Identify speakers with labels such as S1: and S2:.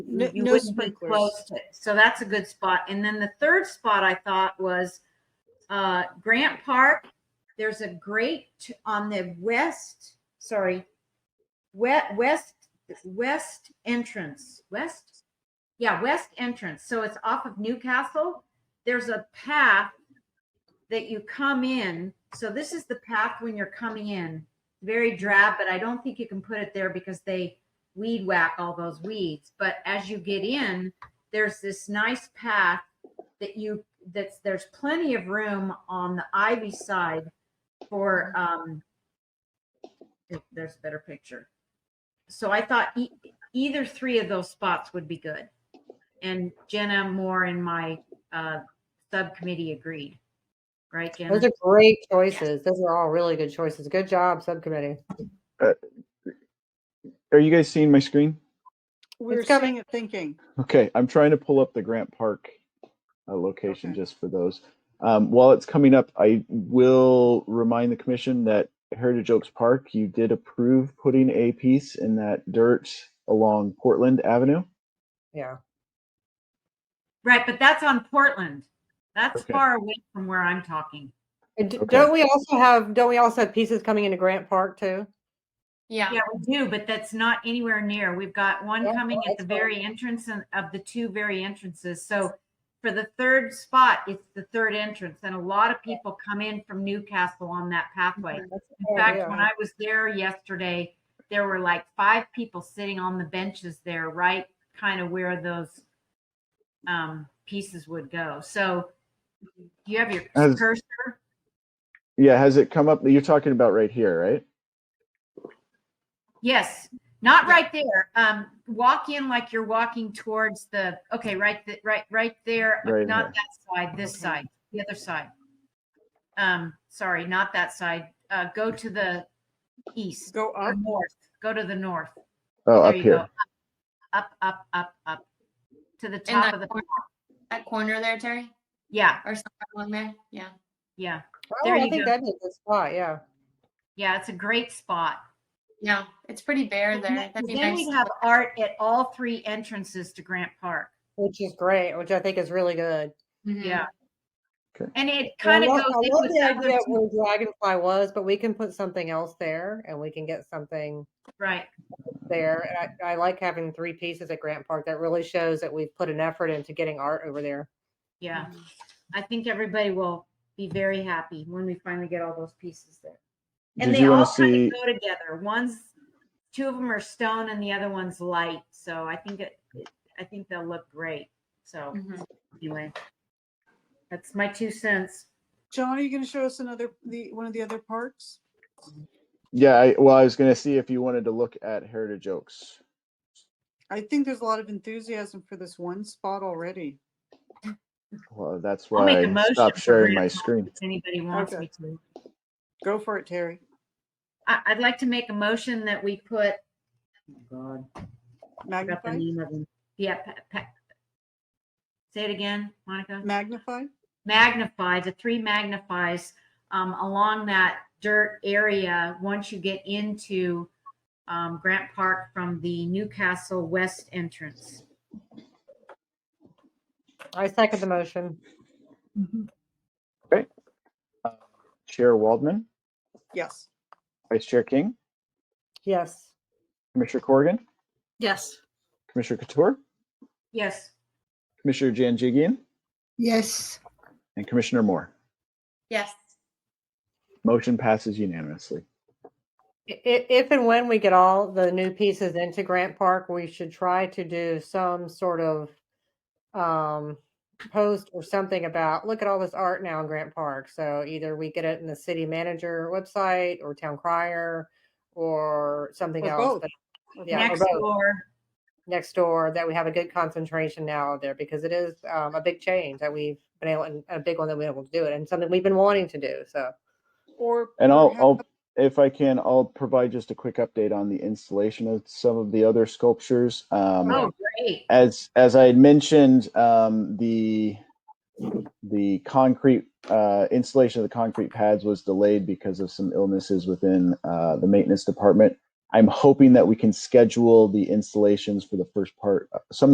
S1: No-
S2: you
S1: no
S2: wouldn't be
S1: sprinklers.
S2: close to. So that's a good spot. And then the third spot I thought was uh, Grant Park. There's a great t- on the west, sorry, west west west entrance west, yeah west entrance. So it's off of Newcastle. There's a path that you come in. So this is the path when you're coming in. Very drab, but I don't think you can put it there because they weed whack all those weeds. But as you get in, there's this nice path that you that's there's plenty of room on the ivy side for um if there's a better picture. So I thought e- either three of those spots would be good. And Jenna Moore and my uh subcommittee agreed. Right, Jenna?
S3: Those are great choices. Those are all really good choices. Good job, subcommittee.
S4: Are you guys seeing my screen?
S1: We're
S3: It's coming.
S1: seeing it thinking.
S4: Okay, I'm trying to pull up the Grant Park uh, location
S1: Okay.
S4: just for those. Um, while it's coming up, I will remind the commission that Heritage Oaks Park, you did approve putting a piece in that dirt along Portland Avenue.
S3: Yeah.
S2: Right, but that's on Portland. That's
S4: Okay.
S2: far away from where I'm talking.
S3: And d-
S4: Okay.
S3: Don't we also have, don't we also have pieces coming into Grant Park too?
S5: Yeah.
S2: Yeah, we do, but that's not anywhere near. We've got one
S3: Yeah,
S2: coming at
S3: that's
S2: the
S3: fine.
S2: very entrance and- of the two very entrances. So for the third spot, it's the third entrance. And a lot of people come in from Newcastle on that pathway. In fact, when I was there yesterday, there were like five people sitting on the benches there, right kind of where those um, pieces would go. So do you have your
S4: As-
S2: cursor?
S4: Yeah, has it come up? You're talking about right here, right?
S2: Yes, not right there. Um, walk in like you're walking towards the, okay, right, th- right, right there. uh,
S4: Right in
S2: Not that side, this side, the other side. Um, sorry, not that side. Uh, go to the east,
S1: Go
S2: or
S1: up.
S2: north, go to the north.
S4: Oh,
S2: There
S4: up
S2: you
S4: here.
S2: go. Up, up, up, up, up. to the
S5: In
S2: top
S5: that,
S2: of the,
S5: corner, that corner there, Terry,
S2: yeah,
S5: or somewhere along there. Yeah.
S2: yeah,
S3: Oh,
S2: there
S3: I
S2: you
S3: think
S2: go.
S3: that'd be a good spot, yeah.
S2: yeah, it's a great spot.
S5: Yeah. It's pretty bare
S2: And
S5: there.
S2: Then
S5: That'd be
S2: then
S5: nice.
S2: we'd have art at all three entrances to Grant Park.
S3: Which is great, which I think is really good.
S5: Mhm.
S2: Yeah.
S4: Okay.
S2: And it
S3: And I
S2: kind of
S3: love-
S2: goes
S3: I
S2: in
S3: love
S2: with
S3: the
S2: the other
S3: idea of
S2: two-
S3: where Dragonfly was, but we can put something else there and we can get something
S2: right,
S3: there. And I, I like having three pieces at Grant Park. That really shows that we've put an effort into getting art over there.
S2: yeah.
S3: Mm-hmm.
S2: I think everybody will be very happy when we finally get all those pieces there. And
S4: Did
S2: they
S4: you
S2: all
S4: want to
S2: kind
S4: see?
S2: of go together. One's, two of them are stone and the other one's light. So I think it, it- I think they'll look great. So
S5: Mhm.
S3: Mm-hmm.
S2: anyway, that's my two cents.
S1: John, are you going to show us another, the, one of the other parks?
S4: Yeah, I, well, I was going to see if you wanted to look at Heritage Oaks.
S1: I think there's a lot of enthusiasm for this one spot already.
S4: Well, that's
S2: I'll make
S4: why
S2: a
S4: I
S2: motion
S4: stopped
S2: for Grant
S4: sharing my
S2: Park
S4: screen.
S2: If anybody wants
S1: Okay.
S2: me to.
S1: Go for it, Terry.
S2: I, I'd like to make a motion that we put, oh God, I forgot
S1: Magnify,
S2: the name of them. Yeah. Pa- Pa- Say it again, Monica.
S1: magnify.
S2: Magnify, the three magnifies um, along that dirt area. Once you get into um, Grant Park from the Newcastle West entrance.
S3: I second the motion.
S4: Chair Waldman,
S1: Yes.
S4: Vice Chair King,
S3: Yes.
S4: Commissioner Corrigan,
S6: Yes.
S4: Commissioner Couture,
S2: Yes.
S4: Commissioner Janjigian,
S6: Yes.
S4: and Commissioner Moore.
S5: Yes.
S4: Motion passes unanimously.
S3: I- i- If and when we get all the new pieces into Grant Park, we should try to do some sort of um, post or something about, look at all this art now in Grant Park. So either we get it in the city manager website or town crier or something
S1: Or
S3: else.
S1: both.
S3: but Yeah, or
S2: Next
S3: both.
S2: door.
S3: Next door, that we have a good concentration now there because it is um, a big change that we've been able, and a big one that we've been able to do it and something we've been wanting to do. So
S1: Or.
S4: And I'll,
S1: perhaps-
S4: I'll, if I can, I'll provide just a quick update on the installation of some of the other sculptures. Um,
S2: Oh, great.
S4: as as I had mentioned, um, the the concrete uh, installation of the concrete pads was delayed because of some illnesses within uh, the maintenance department. I'm hoping that we can schedule the installations for the first part, uh, some of